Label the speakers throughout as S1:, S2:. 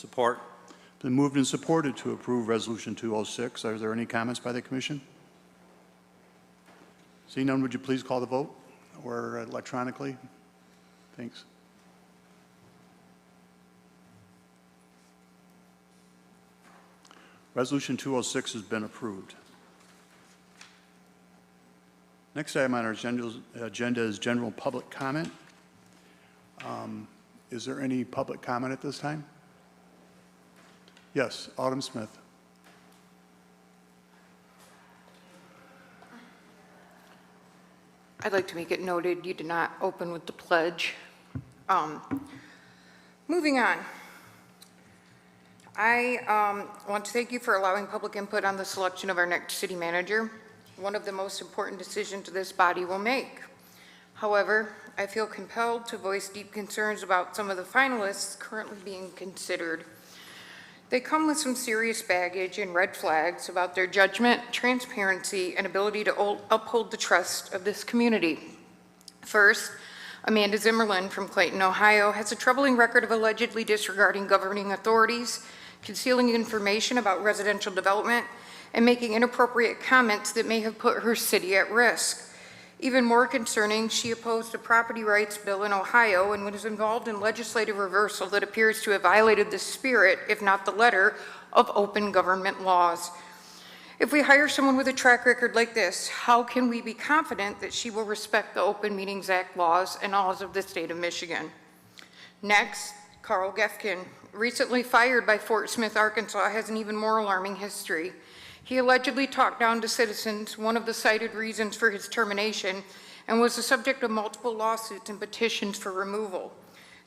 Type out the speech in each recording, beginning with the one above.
S1: Support.
S2: Been moved and supported to approve Resolution 206. Are there any comments by the commission? Seeing none, would you please call the vote or electronically? Thanks. Resolution 206 has been approved. Next item on our agenda agenda is general public comment. Um, Is there any public comment at this time? Yes, Autumn Smith.
S3: I'd like to make it noted, you did not open with the pledge. Um, Moving on. I um, want to thank you for allowing public input on the selection of our next city manager, one of the most important decisions this body will make. However, I feel compelled to voice deep concerns about some of the finalists currently being considered. They come with some serious baggage and red flags about their judgment, transparency, and ability to ol- uphold the trust of this community. First, Amanda Zimmerlin from Clayton, Ohio, has a troubling record of allegedly disregarding governing authorities, concealing information about residential development, and making inappropriate comments that may have put her city at risk. Even more concerning, she opposed a property rights bill in Ohio and was involved in legislative reversal that appears to have violated the spirit, if not the letter, of open government laws. If we hire someone with a track record like this, how can we be confident that she will respect the Open Meetings Act laws and laws of the state of Michigan? Next, Carl Gefkin, recently fired by Fort Smith, Arkansas, has an even more alarming history. He allegedly talked down to citizens, one of the cited reasons for his termination, and was the subject of multiple lawsuits and petitions for removal.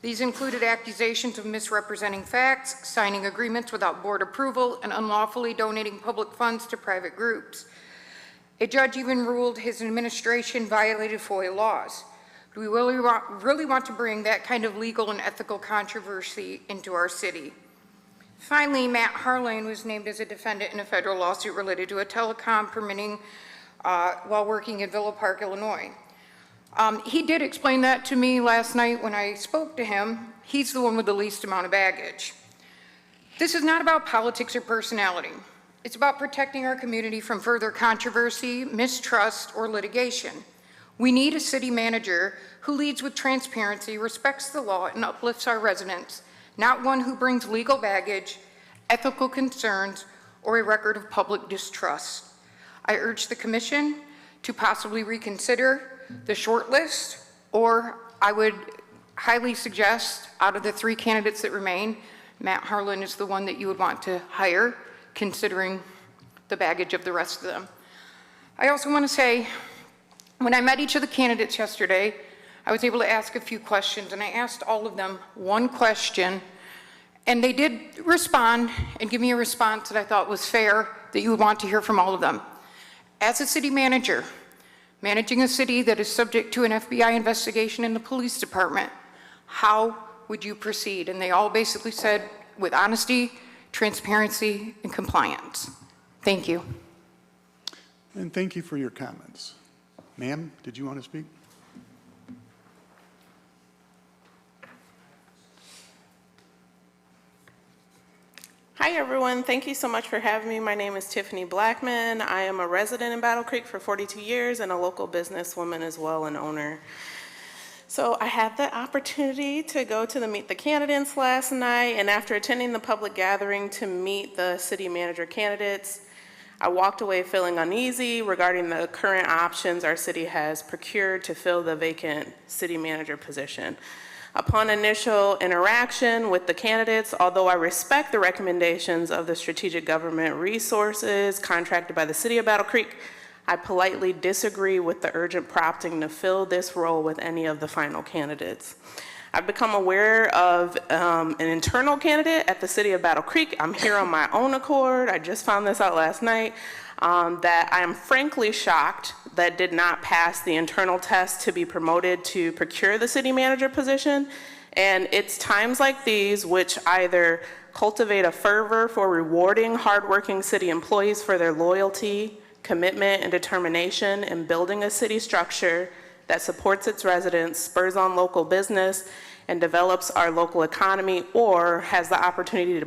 S3: These included accusations of misrepresenting facts, signing agreements without board approval, and unlawfully donating public funds to private groups. A judge even ruled his administration violated FOIA laws. Do we really want, really want to bring that kind of legal and ethical controversy into our city? Finally, Matt Harlane was named as a defendant in a federal lawsuit related to a telecom permitting uh, while working in Villa Park, Illinois. Um, He did explain that to me last night when I spoke to him. He's the one with the least amount of baggage. This is not about politics or personality. It's about protecting our community from further controversy, mistrust, or litigation. We need a city manager who leads with transparency, respects the law, and uplifts our residents, not one who brings legal baggage, ethical concerns, or a record of public distrust. I urge the commission to possibly reconsider the shortlist, or I would highly suggest, out of the three candidates that remain, Matt Harlan is the one that you would want to hire, considering the baggage of the rest of them. I also want to say, when I met each of the candidates yesterday, I was able to ask a few questions, and I asked all of them one question, and they did respond and give me a response that I thought was fair, that you would want to hear from all of them. As a city manager, managing a city that is subject to an FBI investigation in the police department, how would you proceed? And they all basically said, with honesty, transparency, and compliance. Thank you.
S2: And thank you for your comments. Ma'am, did you want to speak?
S4: Hi, everyone. Thank you so much for having me. My name is Tiffany Blackman. I am a resident in Battle Creek for 42 years and a local businesswoman as well and owner. So I had the opportunity to go to the Meet the Candidates last night, and after attending the public gathering to meet the city manager candidates, I walked away feeling uneasy regarding the current options our city has procured to fill the vacant city manager position. Upon initial interaction with the candidates, although I respect the recommendations of the Strategic Government Resources contracted by the City of Battle Creek, I politely disagree with the urgent prompting to fill this role with any of the final candidates. I've become aware of um, an internal candidate at the City of Battle Creek. I'm here on my own accord. I just found this out last night. um, That I am frankly shocked that did not pass the internal test to be promoted to procure the city manager position. And it's times like these which either cultivate a fervor for rewarding hardworking city employees for their loyalty, commitment, and determination in building a city structure that supports its residents, spurs on local business, and develops our local economy or has the opportunity to